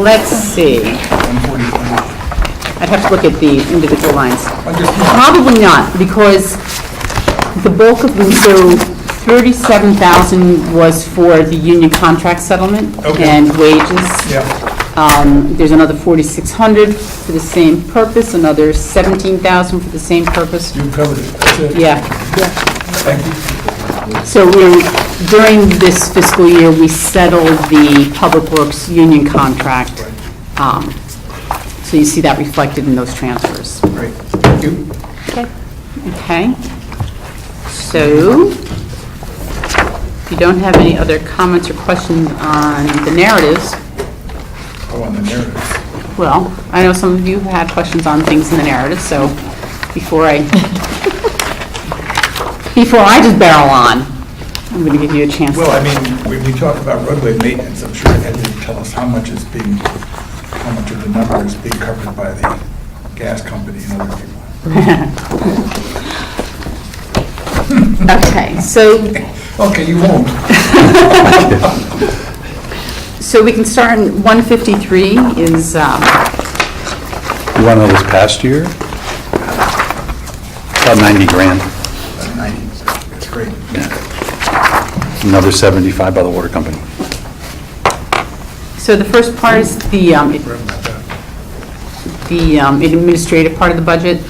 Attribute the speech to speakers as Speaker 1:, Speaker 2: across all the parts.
Speaker 1: let's see. I'd have to look at the individual lines. Probably not, because the bulk of, them- so 37,000 was for the union contract settlement
Speaker 2: Okay.
Speaker 1: and wages.
Speaker 2: Yeah,
Speaker 1: Um, There's another 4,600 for the same purpose, another 17,000 for the same purpose.
Speaker 2: you covered it, that's it.
Speaker 1: Yeah.
Speaker 2: Thank you.
Speaker 1: So we're, during this fiscal year, we settled the Public Works union contract. Um, So you see that reflected in those transfers.
Speaker 2: Great, thank you.
Speaker 1: Okay? So, if you don't have any other comments or questions on the narratives,
Speaker 2: Oh, on the narrative.
Speaker 1: well, I know some of you have had questions on things in the narrative, so before I, before I just barrel on, I'm going to give you a chance.
Speaker 2: Well, I mean, when we talk about roadway maintenance, I'm sure Ed didn't tell us how much is being, how much of the number is being covered by the gas company and other people.
Speaker 1: Okay, so
Speaker 2: Okay, you won't.
Speaker 1: So we can start in 153 is, um,
Speaker 3: You want to know this past year? About 90 grand,
Speaker 2: About 90, that's great.
Speaker 3: another 75 by the water company.
Speaker 1: so the first part is the um,
Speaker 2: Sorry about that.
Speaker 1: the um, administrative part of the budget.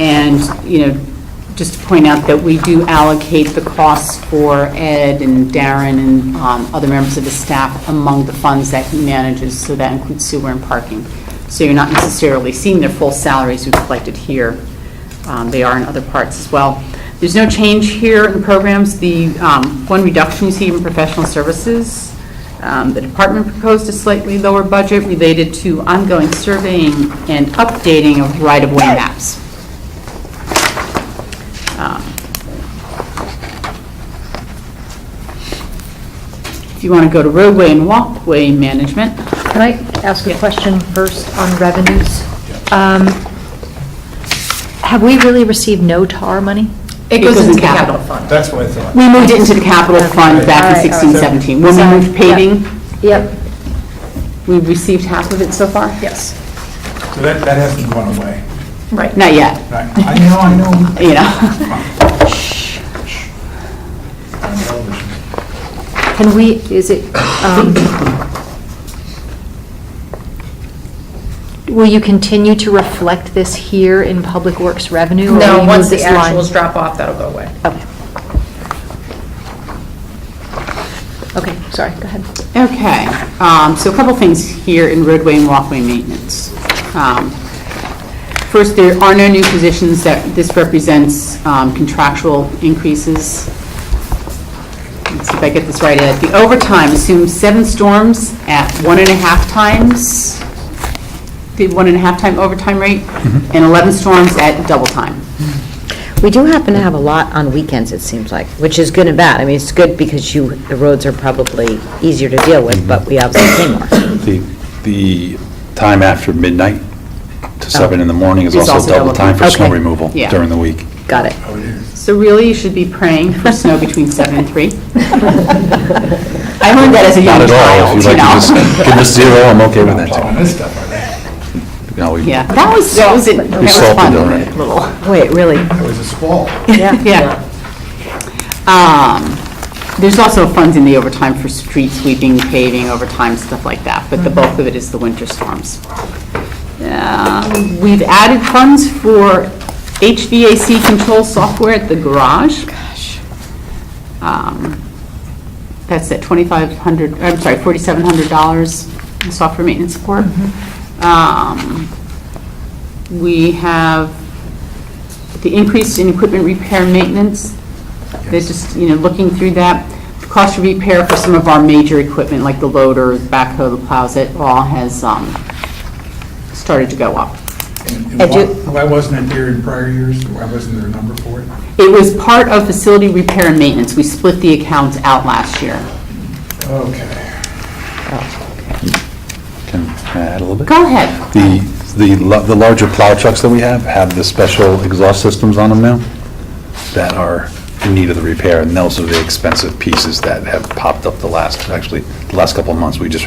Speaker 1: And, you know, just to point out that we do allocate the costs for Ed and Darren and um, other members of the staff among the funds that he manages, so that includes sewer and parking. So you're not necessarily seeing their full salaries reflected here. Um, They are in other parts as well. There's no change here in programs. The um, one reduction you see in professional services um, The department proposed a slightly lower budget related to ongoing surveying and updating of right-of-way maps. Um, If you want to go to roadway and walkway management,
Speaker 4: Can I ask a question first on revenues? Um, Have we really received no TAR money?
Speaker 1: it goes into capital.
Speaker 2: That's what I thought.
Speaker 1: We moved it into the capital fund back in
Speaker 4: Okay, all right, all right.
Speaker 1: 16, 17. When we
Speaker 4: Sorry,
Speaker 1: moved paving,
Speaker 4: Yep.
Speaker 1: we received half of it so far?
Speaker 4: Yes.
Speaker 2: So that, that hasn't gone away.
Speaker 4: Right.
Speaker 1: Not yet,
Speaker 2: I I know, I know.
Speaker 1: you know.
Speaker 2: On television.
Speaker 4: Can we, is it, um, will you continue to reflect this here in Public Works revenue? or will you
Speaker 5: No,
Speaker 4: move
Speaker 5: once the
Speaker 4: this line?
Speaker 5: actuals drop off, that'll go away.
Speaker 4: Okay. Okay, sorry, go ahead.
Speaker 1: Okay, um, so a couple things here in roadway and walkway maintenance. Um, First, there are no new positions that, this represents um, contractual increases. Let's see if I get this right, Ed. The overtime assumes seven storms at one and a half times, the one and a half time overtime rate, and 11 storms at double time.
Speaker 6: We do happen to have a lot on weekends, it seems like, which is good and bad. I mean, it's good because you, the roads are probably easier to deal with, but we obviously pay more.
Speaker 3: The, the time after midnight to 7 in the morning is
Speaker 1: It's
Speaker 3: Oh. also double time for snow
Speaker 6: Okay.
Speaker 3: removal
Speaker 1: Yeah.
Speaker 3: during the week.
Speaker 6: Got it.
Speaker 1: So really, you should be praying for snow between 7 and 3. I learned that as a
Speaker 3: Not
Speaker 1: young
Speaker 3: at all,
Speaker 1: child,
Speaker 3: if
Speaker 1: you
Speaker 3: you'd like to
Speaker 1: know?
Speaker 3: just give us zero, I'm okay with
Speaker 2: Not plowing
Speaker 3: that.
Speaker 2: this stuff, are they?
Speaker 3: too. No, we-
Speaker 1: Yeah, that was, that was, it. that
Speaker 3: We
Speaker 1: was
Speaker 3: salted
Speaker 1: fun.
Speaker 3: already.
Speaker 1: Little,
Speaker 6: Wait, really?
Speaker 2: That was a squall.
Speaker 1: yeah. Um, There's also funds in the overtime for street sweeping, paving, overtime, stuff like that, but the bulk of it is the winter storms. Um, We've added funds for HVAC control software at the garage. Gosh. That's at 2,500, I'm sorry, $4,700 in software maintenance support. Um, We have the increase in equipment repair maintenance. They're just, you know, looking through that. The Cost of repair for some of our major equipment, like the loader, the backhoe, the plows, it all has um, started to go up.
Speaker 2: And- and
Speaker 6: I
Speaker 2: why-
Speaker 6: do-
Speaker 2: Why wasn't it there in prior years? Why wasn't there a number for it?
Speaker 1: It was part of facility repair and maintenance. We split the accounts out last year.
Speaker 2: Okay.
Speaker 3: Can I add a little bit?
Speaker 1: Go ahead.
Speaker 3: The, the la- the larger plow trucks that we have have the special exhaust systems on them now that are in need of the repair, and those are the expensive pieces that have popped up the last, actually, the last couple of months. We just